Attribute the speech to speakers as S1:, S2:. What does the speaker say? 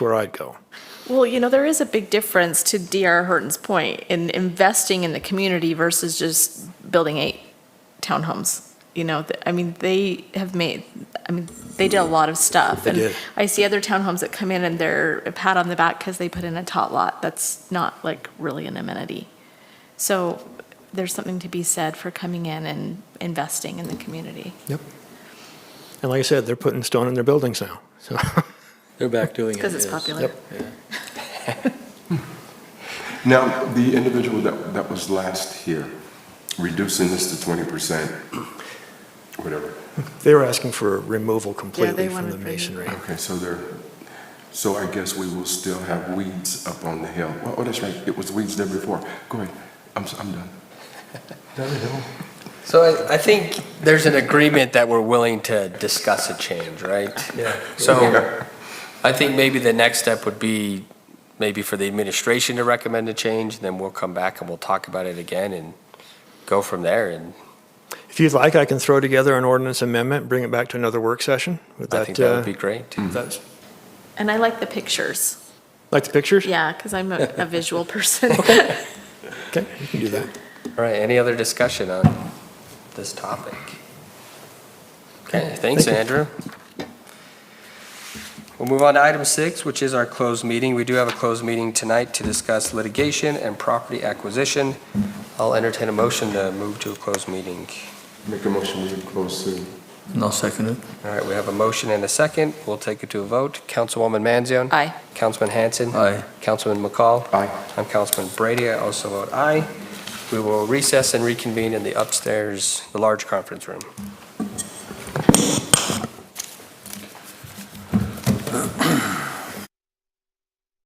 S1: where I'd go.
S2: Well, you know, there is a big difference to DR Horton's point in investing in the community versus just building eight townhomes. You know, th- I mean, they have made, I mean, they did a lot of stuff.
S1: They
S2: And
S1: did.
S2: I see other townhomes that come in and they're a pat on the back because they put in a tot lot. That's not like really an amenity. So there's something to be said for coming in and investing in the community.
S1: Yep. And like I said, they're putting stone in their buildings now, so.
S3: They're back doing it.
S2: Because it's
S3: yes.
S2: popular.
S1: Yep.
S4: Now, the individual that, that was last here, reducing this to 20%, whatever.
S1: They were asking for removal completely
S2: they
S1: from the
S2: wanted removal.
S1: masonry.
S4: Okay, so there, so I guess we will still have weeds up on the hill. Well, Oh, that's right, it was weeds there before. Go ahead, I'm, s- I'm done. Down the hill.
S5: So I, I think there's an agreement that we're willing to discuss a change, right?
S1: Yeah.
S5: So I think maybe the next step would be maybe for the administration to recommend a change, and then we'll come back and we'll talk about it again and go from there. And
S1: If you'd like, I can throw together an ordinance amendment, bring it back to another work session. Would
S5: I
S1: that,
S5: think that
S1: uh,
S5: would be great.
S1: that's-
S2: And I like the pictures.
S1: like the pictures?
S2: Yeah, because I'm a a visual person.
S1: Okay, you can do that.
S5: All right, any other discussion on this topic? Okay, thanks, Andrew. We'll move on to item six, which is our closed meeting. We do have a closed meeting tonight to discuss litigation and property acquisition. I'll entertain a motion to move to a closed meeting.
S4: Make a motion, we close to.
S6: No second it.
S5: All right, we have a motion and a second. We'll take it to a vote. Councilwoman Manzione?
S2: Aye.
S5: Councilman Hanson?
S6: Aye.
S5: Councilman McCall?
S4: Aye.
S5: I'm Councilman Brady. I also vote aye. We will recess and reconvene in the upstairs, the large conference room.